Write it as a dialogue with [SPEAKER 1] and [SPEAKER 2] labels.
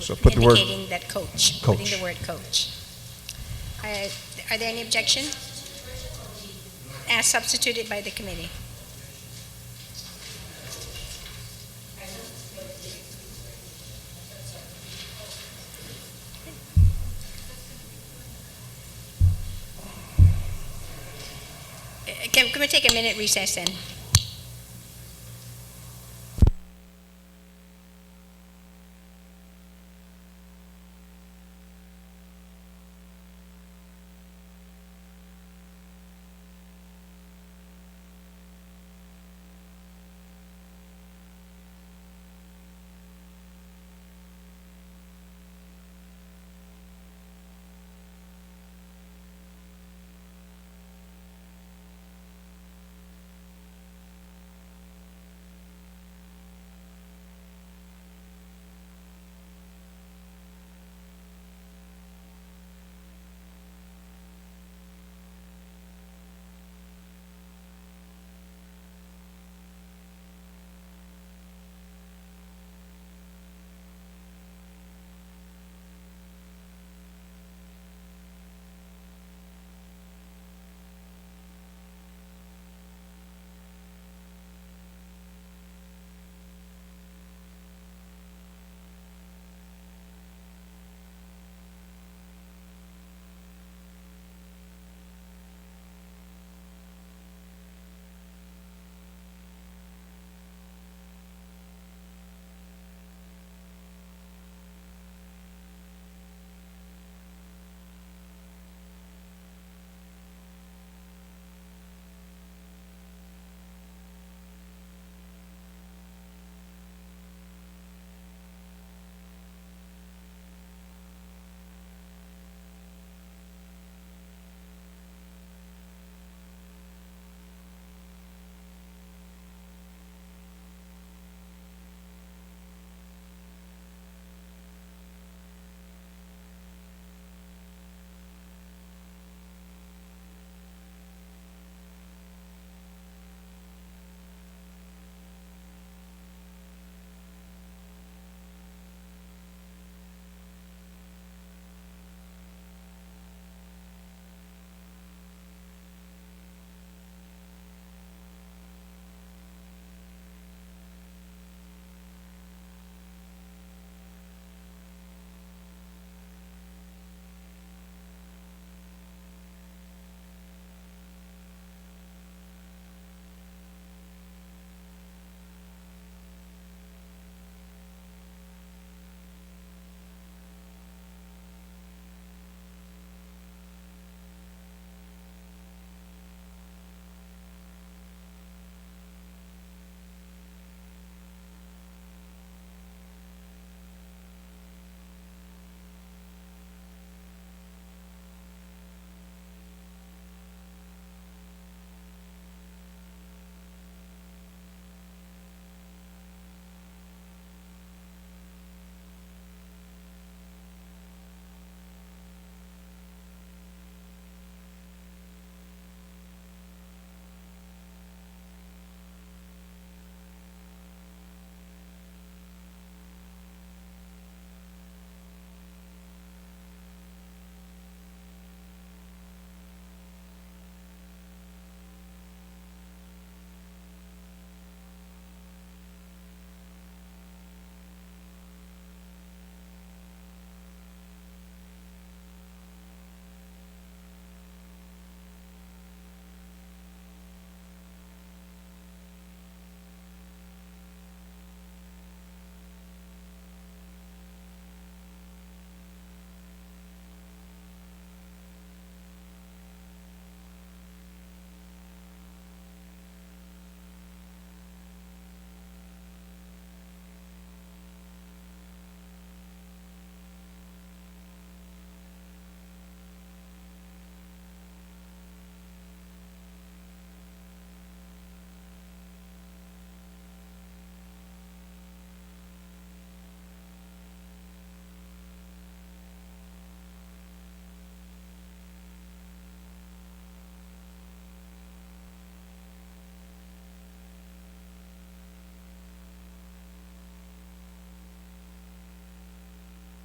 [SPEAKER 1] So put the word,
[SPEAKER 2] Indicating that coach,
[SPEAKER 1] Coach.
[SPEAKER 2] putting the word coach. Uh, Are there any objection? As substituted by the committee. Uh, Can, can we take a minute recess then?